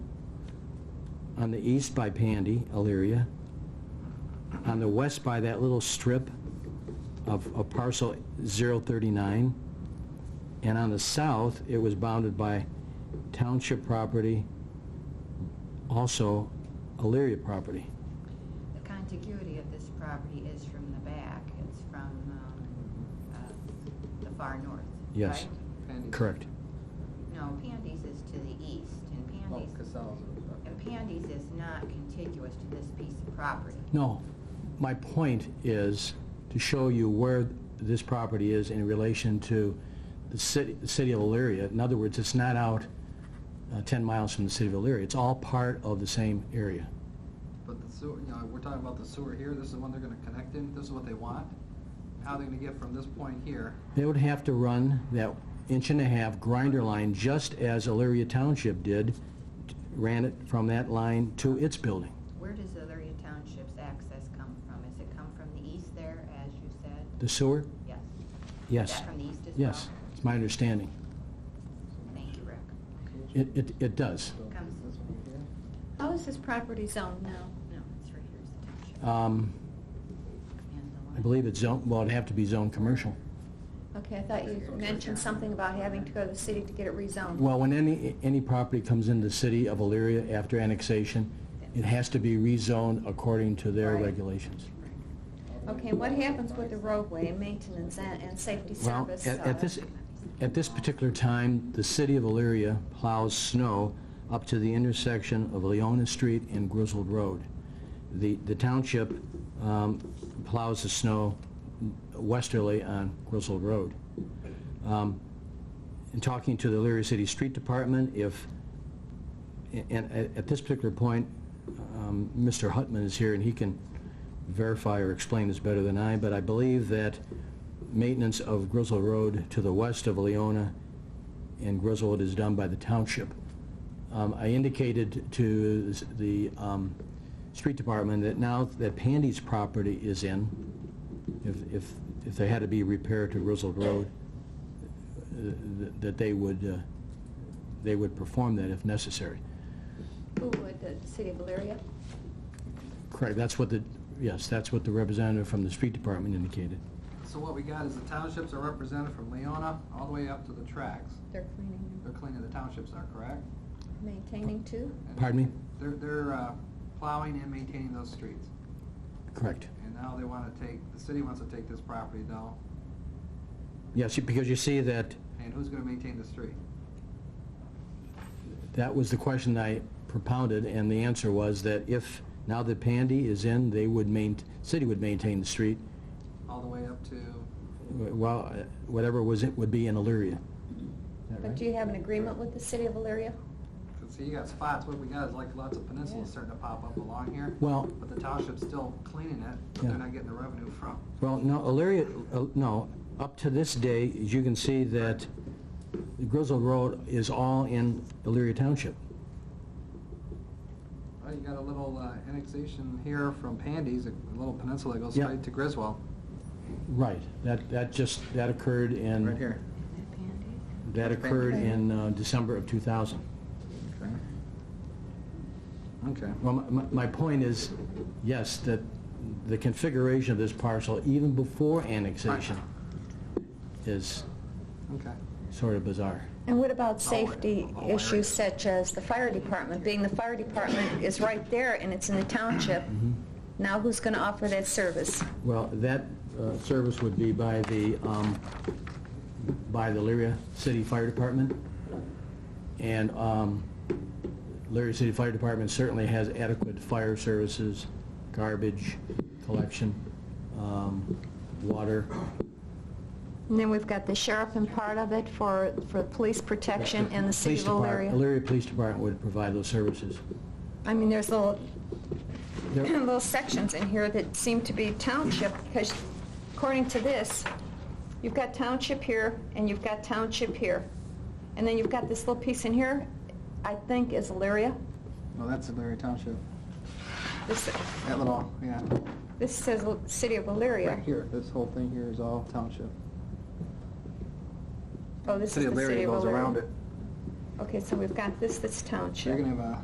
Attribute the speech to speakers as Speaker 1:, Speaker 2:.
Speaker 1: on the east by Pandy, Elyria, on the west by that little strip of of parcel 039, and on the south, it was bounded by township property, also Elyria property.
Speaker 2: The contiguity of this property is from the back, it's from um, uh, the far north,
Speaker 1: Yes.
Speaker 2: right?
Speaker 3: Pandy's-
Speaker 1: Correct.
Speaker 2: No, Pandy's is to the east, and
Speaker 3: Oh,
Speaker 2: Pandy's,
Speaker 3: Casal's.
Speaker 2: and Pandy's is not contiguous to this piece of property.
Speaker 1: No, my point is to show you where this property is in relation to the city, the city of Elyria. In other words, it's not out uh, 10 miles from the city of Elyria. It's all part of the same area.
Speaker 3: But the sewer, you know, we're talking about the sewer here, this is the one they're gonna connect in, this is what they want. How they're gonna get from this point here,
Speaker 1: They would have to run that inch and a half grinder line just as Elyria Township did, ran it from that line to its building.
Speaker 2: Where does Elyria Township's access come from? Does it come from the east there, as you said?
Speaker 1: The sewer?
Speaker 2: Yes. Is
Speaker 1: Yes.
Speaker 2: that from the east as well?
Speaker 1: Yes, it's my understanding.
Speaker 2: Thank you, Rick.
Speaker 1: It, it, it does.
Speaker 3: so
Speaker 2: Comes-
Speaker 3: this one here.
Speaker 4: How is this property zoned now?
Speaker 2: No, it's right here is the township.
Speaker 1: Um,
Speaker 2: and the
Speaker 1: I
Speaker 2: line.
Speaker 1: believe it's zone, well, it'd have to be zone commercial.
Speaker 4: Okay, I thought you mentioned something about having to go to the city to get it rezoned.
Speaker 1: Well, when any, any property comes into the city of Elyria after annexation, it has to be rezoned according to their
Speaker 4: Right.
Speaker 1: regulations.
Speaker 4: Okay, what happens with the roadway and maintenance and, and safety
Speaker 1: Well,
Speaker 4: service?
Speaker 1: at-
Speaker 4: uh,
Speaker 1: at this, at this particular time, the city of Elyria plows snow up to the intersection of Leona Street and Grizzled Road. The the township um, plows the snow westerly on Grizzled Road. Um, In talking to the Elyria City Street Department, if, and at at this particular point, um, Mr. Hutman is here, and he can verify or explain this better than I, but I believe that maintenance of Grizzle Road to the west of Leona and Grizzle is done by the township. Um, I indicated to s- the um, street department that now that Pandy's property is in, if, if, if there had to be repair to Grizzle Road, uh, th- that they would, uh, they would perform that if necessary.
Speaker 4: Who would, the city of Valeria?
Speaker 1: Correct, that's what the, yes, that's what the representative from the street department indicated.
Speaker 3: So what we got is the townships are represented from Leona all the way up to the tracks.
Speaker 4: They're cleaning,
Speaker 3: They're cleaning, the townships are correct?
Speaker 4: maintaining too?
Speaker 3: And
Speaker 1: Pardon me?
Speaker 3: They're, they're uh, plowing and maintaining those streets.
Speaker 1: Correct.
Speaker 3: And now they wanna take, the city wants to take this property though,
Speaker 1: Yes, you- because you see that,
Speaker 3: and who's gonna maintain the street?
Speaker 1: that was the question I propounded, and the answer was that if, now that Pandy is in, they would main, city would maintain the street, uh,
Speaker 3: All the way up to,
Speaker 1: well, whatever was, it would be in Illyria. Is that
Speaker 4: But
Speaker 1: right?
Speaker 4: do you have an agreement with the city of Valeria?
Speaker 3: cause see, you got spots, what we got is like lots of peninsulas starting to pop up along here.
Speaker 1: Well-
Speaker 3: But the township's still cleaning it, but
Speaker 1: Yeah.
Speaker 3: they're not getting the revenue from.
Speaker 1: Well, no, Illyria, uh, no, up to this day, as you can see that Grizzle Road is all in Illyria Township.
Speaker 3: Well, you got a little uh, annexation here from Pandy's, a little peninsula goes
Speaker 1: Yeah.
Speaker 3: straight to Griswold,
Speaker 1: Right, that, that just, that occurred in...
Speaker 3: right here.
Speaker 2: Is that Pandy's?
Speaker 1: That
Speaker 3: Okay.
Speaker 1: occurred in uh, December of 2000.
Speaker 3: Okay. Okay.
Speaker 1: Well, my- my, my point is, yes, that the configuration of this parcel, even before annexation, is
Speaker 3: Okay.
Speaker 1: sort of bizarre.
Speaker 4: And what about
Speaker 3: Oh, I-
Speaker 4: safety
Speaker 3: oh, I already-
Speaker 4: issues such as the fire department? Being the fire department is right there and it's in the township. Now who's going to offer that service?
Speaker 1: Well, that uh, service would be by the, um, by the Lyria City Fire Department. And um, Lyria City Fire Department certainly has adequate fire services, garbage collection, um, water.
Speaker 4: And then we've got the sheriff and part of it for, for police protection and the city
Speaker 1: Police
Speaker 4: of
Speaker 1: Depart-
Speaker 4: Elyria.
Speaker 1: Elyria Police Department would provide those services.
Speaker 4: I mean, there's little,
Speaker 1: There-
Speaker 4: little sections in here that seem to be township, because according to this, you've got township here, and you've got township here. And then you've got this little piece in here, I think is Elyria.
Speaker 3: Well, that's Larry Township.
Speaker 4: This,
Speaker 3: That little, yeah,
Speaker 4: this says L- city of
Speaker 3: right
Speaker 4: Elyria.
Speaker 3: here, this whole thing here is all township.
Speaker 4: Oh, this is the city of Elyria.
Speaker 3: goes around it.
Speaker 4: Okay, so we've got this, that's
Speaker 3: You're
Speaker 4: township.
Speaker 3: gonna have a